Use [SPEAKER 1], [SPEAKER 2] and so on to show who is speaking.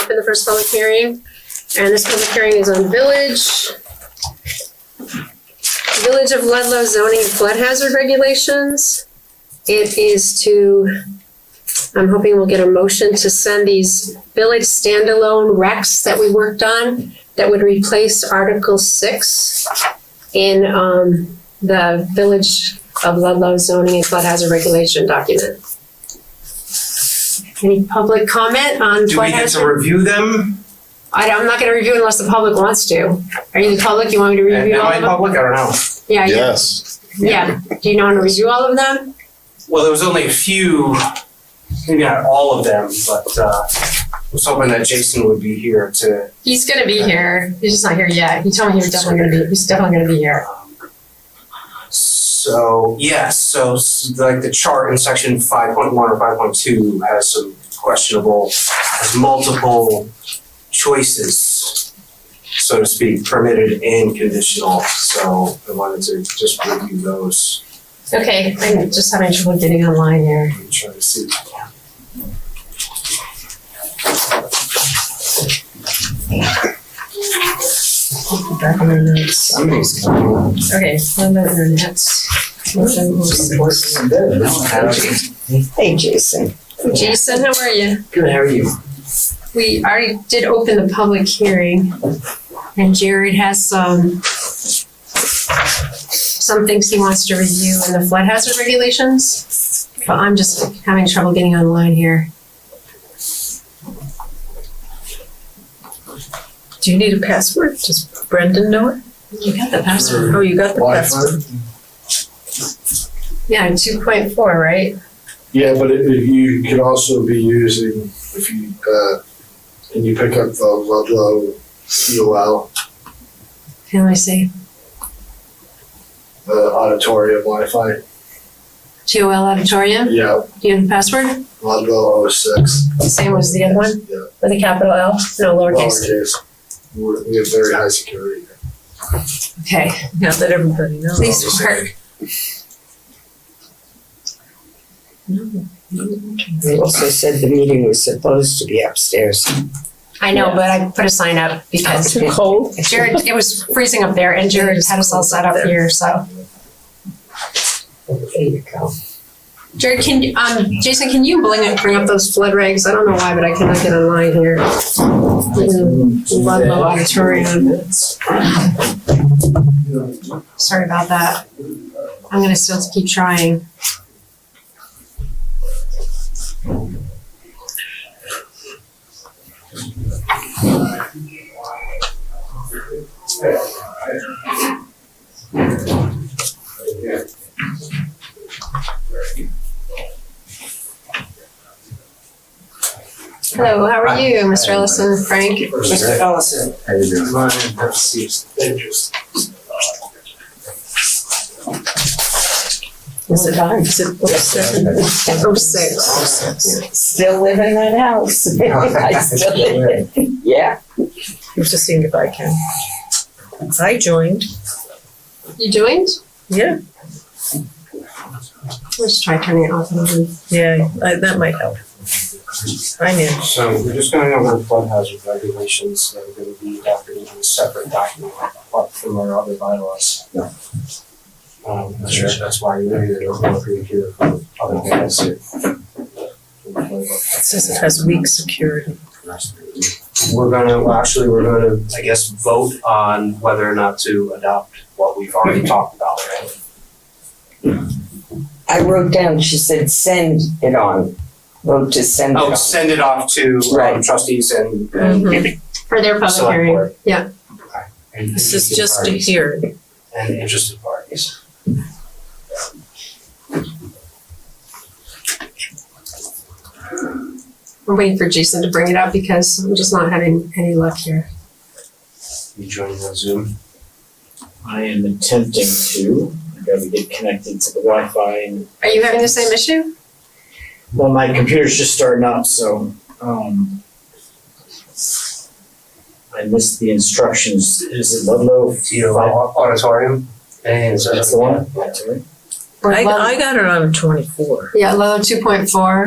[SPEAKER 1] open the first public hearing. And this public hearing is on village. Village of Ludlow zoning and flood hazard regulations. It is to, I'm hoping we'll get a motion to send these village standalone recs that we worked on that would replace Article Six in, um, the Village of Ludlow zoning and flood hazard regulation document. Any public comment on
[SPEAKER 2] Do
[SPEAKER 1] flood
[SPEAKER 2] we get
[SPEAKER 1] hazard?
[SPEAKER 2] to review them?
[SPEAKER 1] I don't- I'm not gonna review unless the public wants to. Are you the public? You want me to
[SPEAKER 2] Am
[SPEAKER 1] review all
[SPEAKER 2] I
[SPEAKER 1] of them?
[SPEAKER 2] public? I don't know.
[SPEAKER 1] Yeah, you-
[SPEAKER 3] Yes.
[SPEAKER 1] yeah. Do you wanna review all of them?
[SPEAKER 2] Well, there was only a few, maybe not all of them, but uh, I was hoping that Jason would be here to.
[SPEAKER 1] He's gonna be here. He's just not here yet. He told me he was definitely gonna be. He's definitely gonna be here.
[SPEAKER 2] So, yes, so s- like the chart in section five point one or five point two has some questionable, has multiple choices, so to speak, permitted and conditional, so I wanted to just review those
[SPEAKER 1] Okay, I'm just having trouble getting online here.
[SPEAKER 2] and try to see.
[SPEAKER 1] Back on my notes.
[SPEAKER 2] Somebody's
[SPEAKER 1] Okay, so I'm on the notes.
[SPEAKER 4] Hey, Jason.
[SPEAKER 1] Jason, how are you?
[SPEAKER 2] Good, how are you?
[SPEAKER 1] We already did open the public hearing and Jared has some some things he wants to review in the flood hazard regulations, but I'm just having trouble getting online here.
[SPEAKER 4] Do you need a password? Does Brendan know it?
[SPEAKER 1] You got the password.
[SPEAKER 4] Oh, you got the password.
[SPEAKER 1] Yeah, two point four, right?
[SPEAKER 3] Yeah, but it, it- you can also be using, if you, uh, and you pick up the Ludlow COL,
[SPEAKER 1] Okay, let me see.
[SPEAKER 3] the auditorium Wi-Fi.
[SPEAKER 1] GOL Auditorium.
[SPEAKER 3] Yeah,
[SPEAKER 1] Do you have the password?
[SPEAKER 3] Ludlow 06.
[SPEAKER 1] Same as the other one
[SPEAKER 3] Yeah.
[SPEAKER 1] with a capital L, no lowercase.
[SPEAKER 3] Lowercase. We're, we have very high security. here.
[SPEAKER 1] Okay,
[SPEAKER 4] Now that everybody knows.
[SPEAKER 1] please work.
[SPEAKER 5] They also said the meeting was supposed to be upstairs.
[SPEAKER 1] I know, but I put a sign up because
[SPEAKER 4] Too cold?
[SPEAKER 1] Jared, it was freezing up there and Jared had us all set up here, so.
[SPEAKER 5] There you go.
[SPEAKER 1] Jared, can, you- um, Jason, can you bring it, bring up those flood regs? I don't know why, but I cannot get online here. Mm, Ludlow Auditorium. Sorry about that. I'm gonna still keep trying. Hello, how are you, Mr. Ellison, Frank?
[SPEAKER 2] Mr. Ellison. How you doing?
[SPEAKER 4] Is it on? Is it upstairs?
[SPEAKER 1] Oh, six.
[SPEAKER 5] Still live in that house. I still live in- Yeah.
[SPEAKER 4] I'm just seeing if I can. I joined.
[SPEAKER 1] You joined?
[SPEAKER 4] Yeah,
[SPEAKER 1] Let's try turning it off and on.
[SPEAKER 4] yeah, I- that might help. I knew.
[SPEAKER 2] So we're just going over the flood hazard regulations that are going to be adopted in a separate document apart from our other bylaws. Um, I'm sure that's why you maybe they don't want to hear from other guys.
[SPEAKER 4] It says it has weak security.
[SPEAKER 2] We're gonna, well, actually, we're gonna, I guess, vote on whether or not to adopt what we've already talked about, right?
[SPEAKER 5] I wrote down, she said, send it on. Vote to send it
[SPEAKER 2] Oh,
[SPEAKER 5] on.
[SPEAKER 2] send it off to um,
[SPEAKER 5] Right.
[SPEAKER 2] trustees and, and.
[SPEAKER 1] For their public
[SPEAKER 2] Select
[SPEAKER 1] hearing.
[SPEAKER 2] board.
[SPEAKER 1] Yeah.
[SPEAKER 2] and
[SPEAKER 4] Mm-hmm. This is
[SPEAKER 2] interested
[SPEAKER 4] just a
[SPEAKER 2] parties.
[SPEAKER 4] hearing.
[SPEAKER 2] and interested parties.
[SPEAKER 1] We're waiting for Jason to bring it up because I'm just not having any luck here.
[SPEAKER 2] You joining on Zoom?
[SPEAKER 6] I am attempting to, I gotta get connected to the Wi-Fi and,
[SPEAKER 1] Are you having the same issue?
[SPEAKER 6] well, my computer's just starting up, so, um. I missed the instructions, is it Ludlow?
[SPEAKER 2] Auditorium? And so
[SPEAKER 6] That's the one?
[SPEAKER 2] Yeah.
[SPEAKER 1] Or
[SPEAKER 4] I,
[SPEAKER 1] Ludlow-
[SPEAKER 4] I got it on twenty-four.
[SPEAKER 1] Yeah, Ludlow two point four.